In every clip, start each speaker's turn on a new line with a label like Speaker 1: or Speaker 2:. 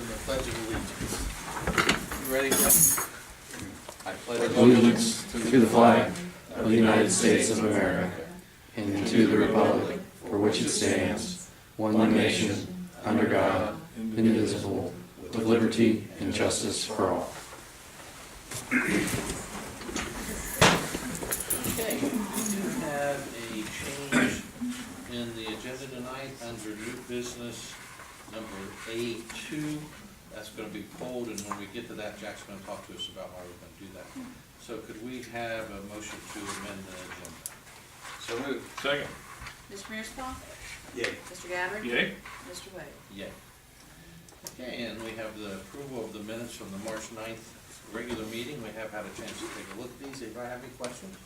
Speaker 1: pledge of allegiance. You ready, Jeff? I pledge
Speaker 2: allegiance to the flag of the United States of America and to the republic for which it stands, one nation, under God, indivisible, with liberty and justice for all.
Speaker 1: Okay, we do have a change in the agenda tonight under new business number A two. That's gonna be pulled, and when we get to that, Jack's gonna talk to us about why we're gonna do that. So could we have a motion to amend the agenda? So moved.
Speaker 3: Second.
Speaker 4: Mr. Mearsclaw?
Speaker 1: Yay.
Speaker 4: Mr. Gabbard?
Speaker 3: Yay.
Speaker 4: Mr. Wade?
Speaker 1: Yay. Okay, and we have the approval of the minutes from the March 9th regular meeting. We have had a chance to take a look at these. Anybody have any questions?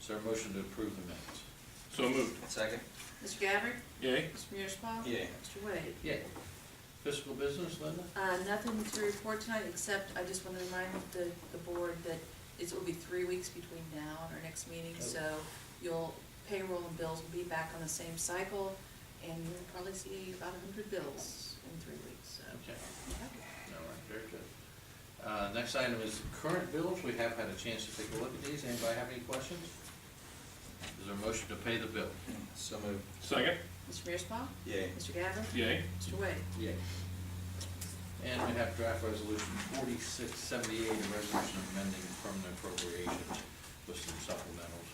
Speaker 1: Is there a motion to approve the minutes?
Speaker 3: So moved.
Speaker 1: Second.
Speaker 4: Mr. Gabbard?
Speaker 3: Yay.
Speaker 4: Mr. Mearsclaw?
Speaker 1: Yeah.
Speaker 4: Mr. Wade?
Speaker 1: Yeah. Fiscal business, Linda?
Speaker 4: Uh, nothing to report tonight, except I just want to remind the, the board that it will be three weeks between now and our next meeting,
Speaker 1: Oh.
Speaker 4: so you'll, payroll and bills will be back on the same cycle, and you'll probably see about a hundred bills in three weeks, so.
Speaker 1: Okay, all
Speaker 4: yeah.
Speaker 1: right, very good. Uh, Next item is current bills. We have had a chance to take a look at these. Anybody have any questions? Is there a motion to pay the bill? So moved.
Speaker 3: Second.
Speaker 4: Mr. Mearsclaw?
Speaker 1: Yeah.
Speaker 4: Mr. Gabbard?
Speaker 3: Yay.
Speaker 4: Mr. Wade?
Speaker 1: Yay. And we have draft resolution forty-six seventy-eight, a resolution amending permanent appropriations with some supplementals.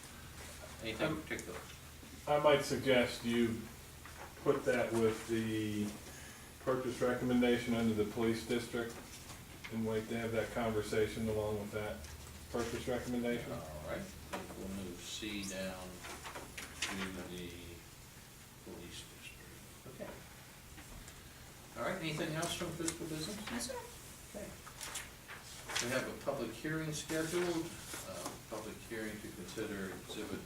Speaker 1: Anything in particular?
Speaker 5: I might suggest you put that with the purchase recommendation under the police district and wait to have that conversation along with that purchase recommendation.
Speaker 1: All right, we'll move C down to the police district. Okay. All right, anything else from fiscal business?
Speaker 4: Yes, sir.
Speaker 1: Okay. We have a public hearing scheduled, uh, public hearing to consider exhibit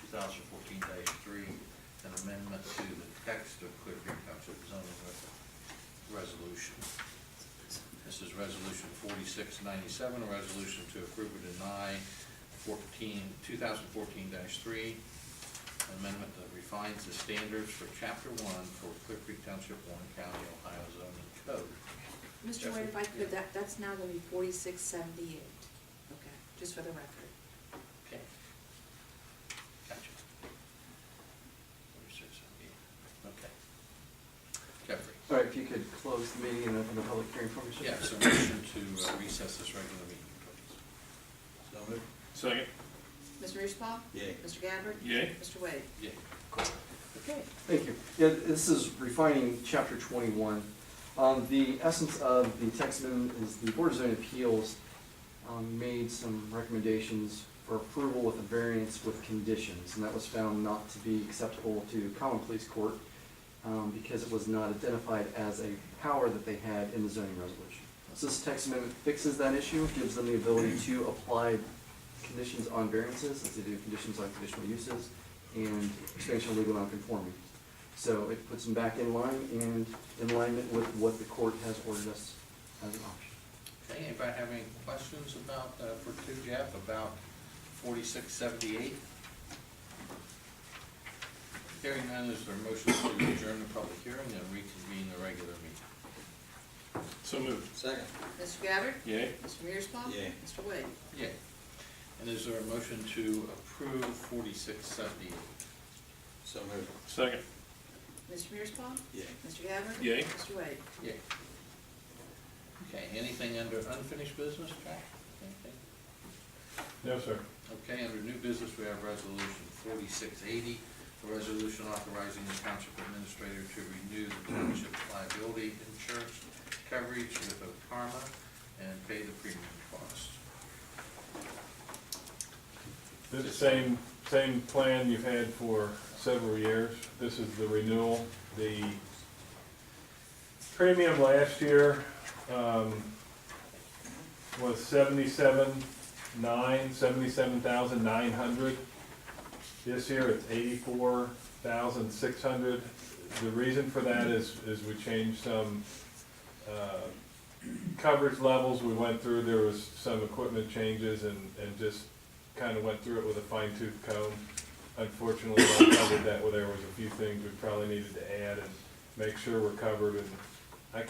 Speaker 1: two thousand fourteen three, an amendment to the text of Clear Creek Township zoning re- resolution. This is resolution forty-six ninety-seven, a resolution to approve or deny 14 2014 three, amendment that refines the standards for chapter one for Clear Creek Township, Warren County, Ohio zoning code.
Speaker 4: Mr. Wade, if I could, that, that's now gonna be forty-six seventy-eight, okay, just for the record.
Speaker 1: Okay. Gotcha. Forty-six seventy-eight, okay. Jeffrey?
Speaker 2: All right, if you could close the meeting and open the public hearing for me, sir.
Speaker 1: Yeah, so motion to uh, recess this regular meeting, please. So moved?
Speaker 3: Second.
Speaker 4: Mr. Mearsclaw?
Speaker 1: Yeah.
Speaker 4: Mr. Gabbard?
Speaker 3: Yay.
Speaker 4: Mr. Wade?
Speaker 1: Yeah.
Speaker 4: Okay.
Speaker 2: Thank you. Yeah, this is refining chapter twenty-one. Um, the essence of the text amendment is the Board of Zoning Appeals, um, made some recommendations for approval with a variance with conditions, and that was found not to be acceptable to common police court, um, because it was not identified as a power that they had in the zoning resolution. So this text amendment fixes that issue, gives them the ability to apply conditions on variances, as they do conditions on conditional uses, and expansion of legal nonconformity. So it puts them back in line and in alignment with what the court has ordered us as an option.
Speaker 1: Okay, anybody have any questions about, uh, for two Jeff, about forty-six seventy-eight? Hearing none, is there a motion to adjourn the public hearing and reconvene the regular meeting?
Speaker 3: So moved.
Speaker 1: Second.
Speaker 4: Mr. Gabbard?
Speaker 3: Yay.
Speaker 4: Mr. Mearsclaw?
Speaker 1: Yeah.
Speaker 4: Mr. Wade?
Speaker 1: Yeah. And is there a motion to approve forty-six seventy-eight? So moved.
Speaker 3: Second.
Speaker 4: Mr. Mearsclaw?
Speaker 1: Yeah.
Speaker 4: Mr. Gabbard?
Speaker 3: Yay.
Speaker 4: Mr. Wade?
Speaker 1: Yeah. Okay, anything under unfinished business, Jack? Anything?
Speaker 5: No, sir.
Speaker 1: Okay, under new business, we have resolution forty-six eighty, a resolution authorizing the township administrator to renew the township liability insurance coverage with Oparma and pay the premium cost.
Speaker 5: This is same, same plan you've had for several years. This is the renewal. The premium last year, um, was seventy-seven nine, seventy-seven thousand nine hundred. This year, it's eighty-four thousand six hundred. The reason for that is, is we changed some, uh, coverage levels we went through. There was some equipment changes and, and just kind of went through it with a fine tooth comb. Unfortunately, I covered that, where there was a few things we probably needed to add and make sure we're covered and